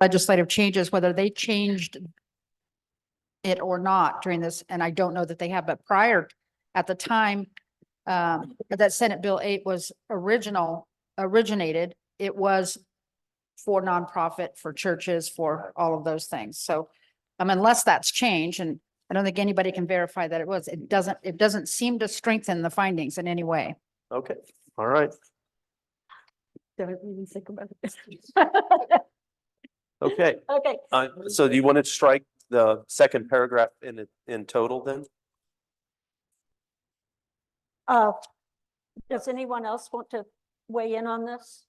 legislative changes, whether they changed it or not during this, and I don't know that they have, but prior, at the time um, that Senate Bill eight was original, originated, it was for nonprofit, for churches, for all of those things. So um, unless that's changed, and I don't think anybody can verify that it was, it doesn't, it doesn't seem to strengthen the findings in any way. Okay, all right. Don't even think about it. Okay, Okay. uh, so do you want to strike the second paragraph in it, in total then? Uh, does anyone else want to weigh in on this?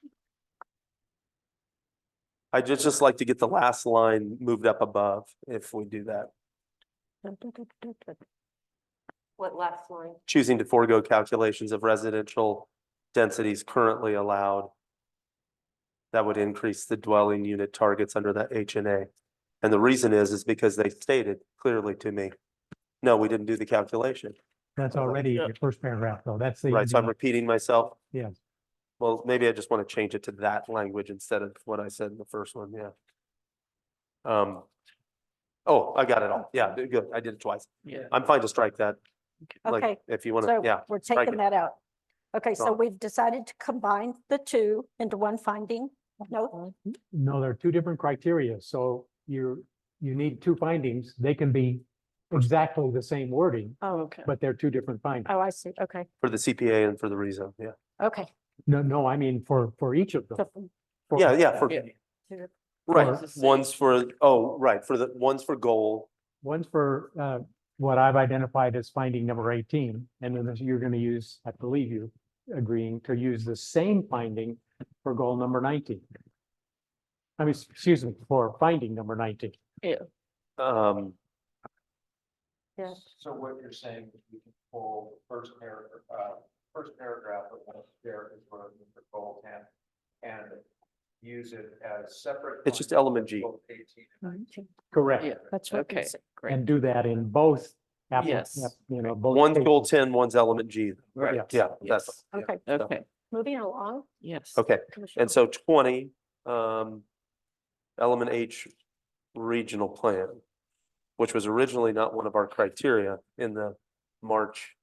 I'd just, just like to get the last line moved up above if we do that. What last line? Choosing to forego calculations of residential densities currently allowed. That would increase the dwelling unit targets under the H and A. And the reason is, is because they stated clearly to me, no, we didn't do the calculation. That's already in your first paragraph, though. That's the. Right, so I'm repeating myself. Yes. Well, maybe I just want to change it to that language instead of what I said in the first one, yeah. Um, oh, I got it all. Yeah, d- good. I did it twice. Yeah. I'm fine to strike that. Like, Okay, If you want to, yeah, so we're strike taking it. that out. Okay, so Gone. we've decided to combine the two into one finding. No, No, there are two different criteria, so you're, you need two findings. They can be exactly the same wording, oh, okay. but they're two different findings. Oh, I see. Okay, for the CPA and for the reason, yeah. okay. No, no, I mean, for, for each of them. So- For- Yeah, yeah, for, right, Or- one's for, oh, right, for the, one's for goal. One's for, uh, what I've identified as finding number eighteen, and then you're gonna use, I believe you agreeing to use the same finding for goal number nineteen. I mean, excuse me, for finding number nineteen. Um, Yeah. So what you're saying is we can pull the first paragraph, uh, first paragraph of one there is where the goal ten and use it as separate. it's just element G. Both eighteen Hmm. Correct. Yeah, That's what we Okay. said. and do that in both. appli- Yes. app- You know, both. One's cases. goal ten, one's element G. Yes. Yeah, that's, yeah. Okay, So- Okay, moving along. yes. okay. Commissioner. And so twenty, um, element H regional plan, which was originally not one of our criteria in the March.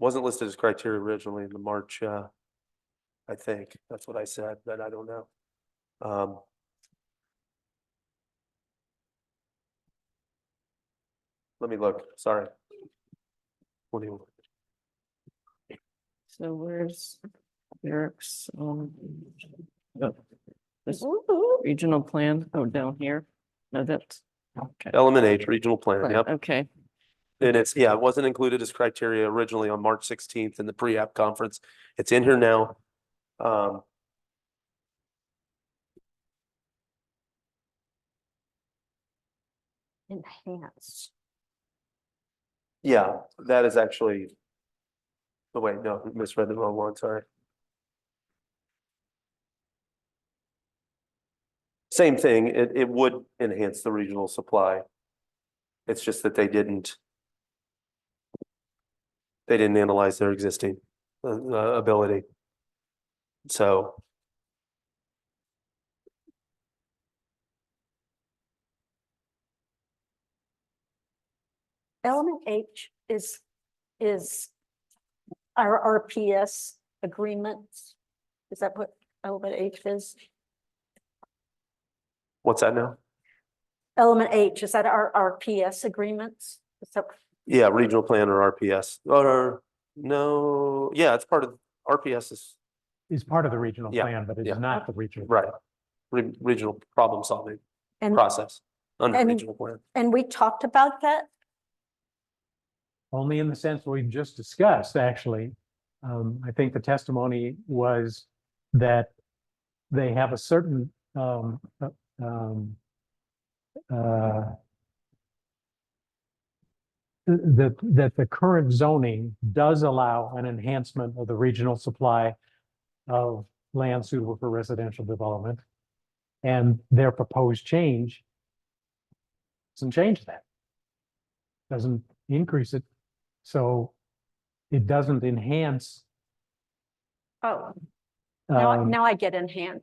Wasn't listed as criteria originally in the March, uh, I think, that's what I said, but I don't know. Um. Let me look, sorry. What do you, So where's Eric's, um, oh, this Woo-hoo. regional plan? Oh, down here? No, that's, okay. element H regional plan, Plan, yep. Okay, And it's, yeah, it wasn't included as criteria originally on March sixteenth in the pre-app conference. It's in here now. Um. Enhance. Yeah, that is actually. Oh, wait, no, misread the wrong one, sorry. Same thing, it, it would enhance the regional supply. It's just that they didn't. They didn't analyze their existing, uh, uh, ability. So. Element H is, is our RPS agreements. Is that what element H is? What's that now? Element H, is that our RPS agreements? Is that- Yeah, regional plan or RPS, or, no, yeah, it's part of, RPS is, Is part of the regional Yeah, plan, but yeah. it's not the regional. right. Re- Regional problem solving And, process under And- regional plan. and we talked about that? Only in the sense we've just discussed, actually. Um, I think the testimony was that they have a certain, um, uh, um, uh, th- that, that the current zoning does allow an enhancement of the regional supply of land suitable for residential development. And their proposed change doesn't change that. Doesn't increase it. So it doesn't enhance. Oh, now, I- um, now I get enhanced.